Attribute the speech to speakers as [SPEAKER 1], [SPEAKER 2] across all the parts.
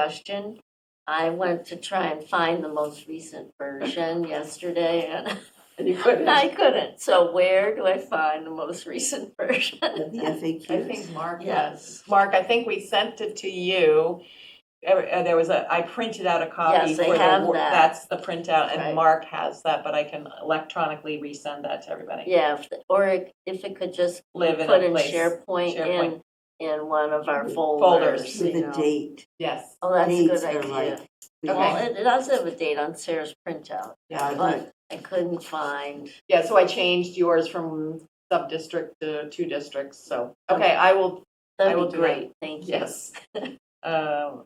[SPEAKER 1] question. I went to try and find the most recent version yesterday and
[SPEAKER 2] And you couldn't.
[SPEAKER 1] I couldn't. So where do I find the most recent version?
[SPEAKER 3] of the
[SPEAKER 2] I
[SPEAKER 3] FAQs.
[SPEAKER 2] think Mark.
[SPEAKER 1] Yes.
[SPEAKER 2] Mark, I think we sent it to you. Uh, uh, There was a, I printed out a copy.
[SPEAKER 1] Yes, I
[SPEAKER 2] for the
[SPEAKER 1] have
[SPEAKER 2] wor-
[SPEAKER 1] that.
[SPEAKER 2] That's the printout,
[SPEAKER 1] Right.
[SPEAKER 2] and Mark has that, but I can electronically resend that to everybody.
[SPEAKER 1] Yeah, if the- or it- if it could just
[SPEAKER 2] Live in
[SPEAKER 1] put
[SPEAKER 2] a
[SPEAKER 1] in
[SPEAKER 2] place.
[SPEAKER 1] SharePoint in,
[SPEAKER 2] SharePoint.
[SPEAKER 1] in one of our
[SPEAKER 2] Folders.
[SPEAKER 1] folders,
[SPEAKER 3] With
[SPEAKER 1] you
[SPEAKER 3] a
[SPEAKER 1] know.
[SPEAKER 3] date,
[SPEAKER 2] Yes.
[SPEAKER 1] Oh, that's a
[SPEAKER 3] dates
[SPEAKER 1] good
[SPEAKER 3] are
[SPEAKER 1] idea.
[SPEAKER 3] like. we
[SPEAKER 1] Well,
[SPEAKER 2] Okay.
[SPEAKER 3] want-
[SPEAKER 1] it it does have a date on Sarah's printout,
[SPEAKER 3] Yeah,
[SPEAKER 1] but I couldn't find,
[SPEAKER 2] Yeah, so I changed yours from sub-district to two districts, so, okay, I will, I
[SPEAKER 1] that'd
[SPEAKER 2] will
[SPEAKER 1] be
[SPEAKER 2] do that.
[SPEAKER 1] great, thank you.
[SPEAKER 2] yes. Um,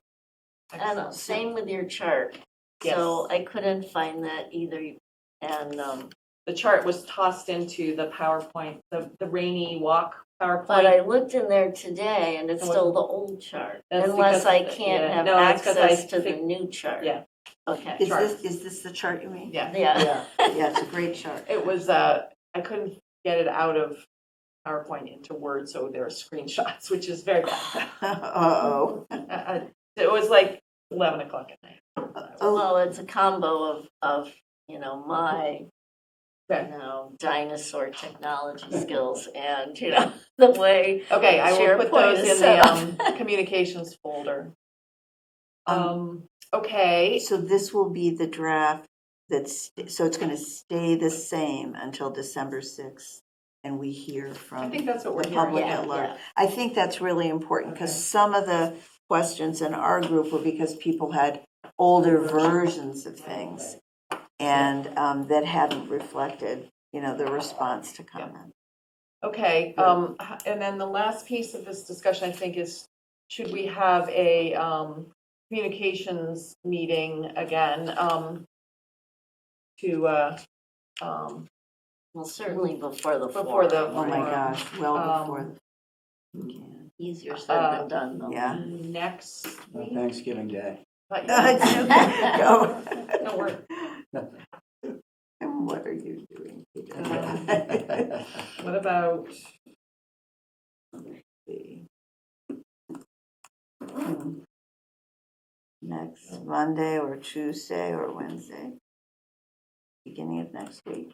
[SPEAKER 1] And
[SPEAKER 2] excellent.
[SPEAKER 1] same with your chart. So I couldn't find that either. And um,
[SPEAKER 2] The chart was tossed into the PowerPoint, the the rainy walk
[SPEAKER 1] but
[SPEAKER 2] PowerPoint.
[SPEAKER 1] I looked in there today and it's
[SPEAKER 2] It wasn't-
[SPEAKER 1] still the old chart,
[SPEAKER 2] That's
[SPEAKER 1] unless
[SPEAKER 2] because- uh,
[SPEAKER 1] I can't
[SPEAKER 2] yeah,
[SPEAKER 1] have
[SPEAKER 2] no, that's 'cause I
[SPEAKER 1] access to the
[SPEAKER 2] fig-
[SPEAKER 1] new chart.
[SPEAKER 2] Yeah.
[SPEAKER 1] Okay,
[SPEAKER 3] Is this, is this the chart you mean?
[SPEAKER 2] Yeah.
[SPEAKER 1] yeah,
[SPEAKER 3] Yeah, it's a great chart.
[SPEAKER 2] It was, uh, I couldn't get it out of PowerPoint into Word, so there are screenshots, which is very, bad.
[SPEAKER 3] Uh-oh.
[SPEAKER 2] Uh, uh, it was like 11 o'clock at night.
[SPEAKER 3] Oh,
[SPEAKER 1] well, it's a combo of, of, you know, my, you
[SPEAKER 2] Okay.
[SPEAKER 1] know, dinosaur technology skills and, you know, the way,
[SPEAKER 2] Okay, I will put
[SPEAKER 1] SharePoint
[SPEAKER 2] those
[SPEAKER 1] is
[SPEAKER 2] in
[SPEAKER 1] set
[SPEAKER 2] the
[SPEAKER 1] up.
[SPEAKER 2] um, communications folder.
[SPEAKER 3] um,
[SPEAKER 2] Um, okay,
[SPEAKER 3] so this will be the draft that's, so it's gonna stay the same until December sixth, and we hear
[SPEAKER 2] I
[SPEAKER 3] from
[SPEAKER 2] think that's what we're
[SPEAKER 3] the
[SPEAKER 2] hearing.
[SPEAKER 3] public
[SPEAKER 1] Yeah,
[SPEAKER 3] at large.
[SPEAKER 1] yeah.
[SPEAKER 3] I think that's really important, because
[SPEAKER 2] Okay.
[SPEAKER 3] some of the questions in our group were because people had older versions of things and um, that haven't reflected, you know, the response to comment.
[SPEAKER 2] Okay, um, h- and then the last piece of this discussion, I think, is should we have a, um, communications meeting again, um, to, uh, um,
[SPEAKER 1] well, certainly before the forum.
[SPEAKER 2] Before the-
[SPEAKER 3] Oh, my
[SPEAKER 2] Right.
[SPEAKER 3] gosh, well before.
[SPEAKER 2] Um,
[SPEAKER 3] we can.
[SPEAKER 1] Easier
[SPEAKER 2] Uh,
[SPEAKER 1] said than done, though.
[SPEAKER 3] Yeah.
[SPEAKER 2] next
[SPEAKER 4] On
[SPEAKER 2] week?
[SPEAKER 4] Thanksgiving Day.
[SPEAKER 2] But-
[SPEAKER 3] Go.
[SPEAKER 2] No, we're-
[SPEAKER 3] And what are you doing today?
[SPEAKER 4] Well,
[SPEAKER 2] What about,
[SPEAKER 3] Hmm. Next Monday or Tuesday or Wednesday? Beginning of next week?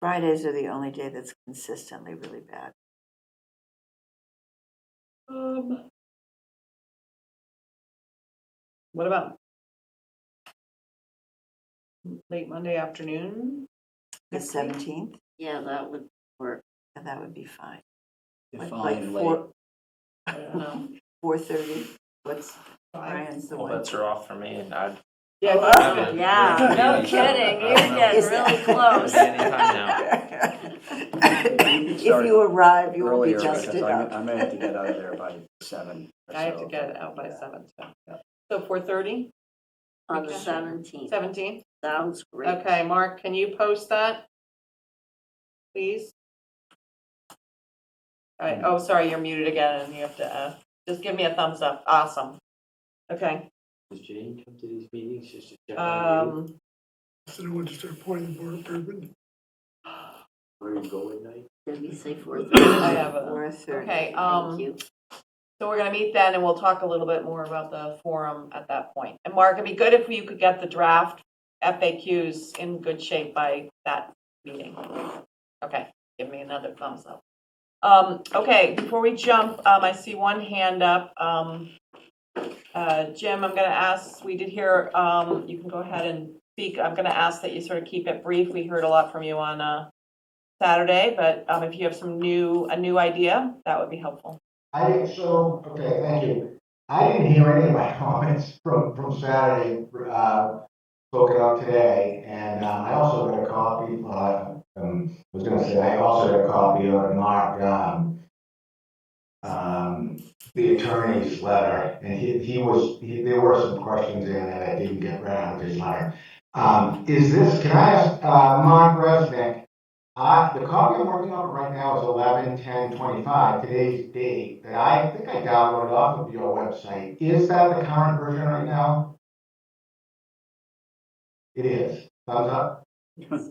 [SPEAKER 3] Fridays are the only day that's consistently really bad.
[SPEAKER 2] um, what about late Monday afternoon?
[SPEAKER 3] The
[SPEAKER 2] Next week?
[SPEAKER 3] seventeenth,
[SPEAKER 1] Yeah, that would work.
[SPEAKER 3] that would be fine. Like- like
[SPEAKER 4] Fine,
[SPEAKER 3] four-
[SPEAKER 4] late.
[SPEAKER 2] I don't know.
[SPEAKER 3] Four thirty, what's
[SPEAKER 2] Five?
[SPEAKER 3] Brian's the
[SPEAKER 5] All
[SPEAKER 3] one?
[SPEAKER 5] bets are off for me, and I.
[SPEAKER 2] Yeah,
[SPEAKER 3] Oh,
[SPEAKER 2] I
[SPEAKER 5] Yeah.
[SPEAKER 1] Yeah, no kidding, you get
[SPEAKER 3] Is
[SPEAKER 1] really
[SPEAKER 3] that-
[SPEAKER 1] close.
[SPEAKER 5] Anytime now.
[SPEAKER 3] If
[SPEAKER 4] Sorry.
[SPEAKER 3] you arrive, you will be
[SPEAKER 4] Earlier, because
[SPEAKER 3] dusted
[SPEAKER 4] I
[SPEAKER 3] up.
[SPEAKER 4] I may have to get out of there by seven. or
[SPEAKER 2] I have to
[SPEAKER 4] so.
[SPEAKER 2] get out by
[SPEAKER 4] Yeah.
[SPEAKER 2] seven, so, yeah. so four thirty,
[SPEAKER 1] On the
[SPEAKER 2] Okay.
[SPEAKER 1] seventeenth,
[SPEAKER 2] seventeen?
[SPEAKER 1] sounds great.
[SPEAKER 2] Okay, Mark, can you post that? Please? All right, oh, sorry, you're muted again, and you have to, uh, just give me a thumbs up, awesome. Okay,
[SPEAKER 5] Does Jane come to these meetings just to check on you?
[SPEAKER 2] um,
[SPEAKER 6] So I want to start pointing the board, Urban.
[SPEAKER 5] Where you go at night?
[SPEAKER 1] Did we say four
[SPEAKER 2] I
[SPEAKER 1] thirty?
[SPEAKER 2] have a,
[SPEAKER 3] Four thirty.
[SPEAKER 2] okay,
[SPEAKER 1] Thank
[SPEAKER 2] um,
[SPEAKER 1] you.
[SPEAKER 2] so we're gonna meet then, and we'll talk a little bit more about the forum at that point. And Mark, it'd be good if you could get the draft FAQs in good shape by that meeting. Okay, give me another thumbs up. Um, okay, before we jump, um, I see one hand up. Um, uh, Jim, I'm gonna ask, we did hear, um, you can go ahead and speak. I'm gonna ask that you sort of keep it brief. We heard a lot from you on, uh, Saturday, but, um, if you have some new, a new idea, that would be helpful.
[SPEAKER 7] I didn't, so, okay, thank you. I didn't hear any of my comments from, from Saturday, uh, spoken out today, and, um, I also got a copy, uh, um, was gonna say, I also got a copy of Mark, um, um, the attorney's letter, and he, he was, he, there were some questions in that I didn't get around with his letter. Um, is this, can I ask, uh, Mark Resnick, uh, the copy I'm working on right now is eleven ten twenty-five, today's date, that I think I downloaded off of your website. Is that the current version right now? It is. Thumbs up?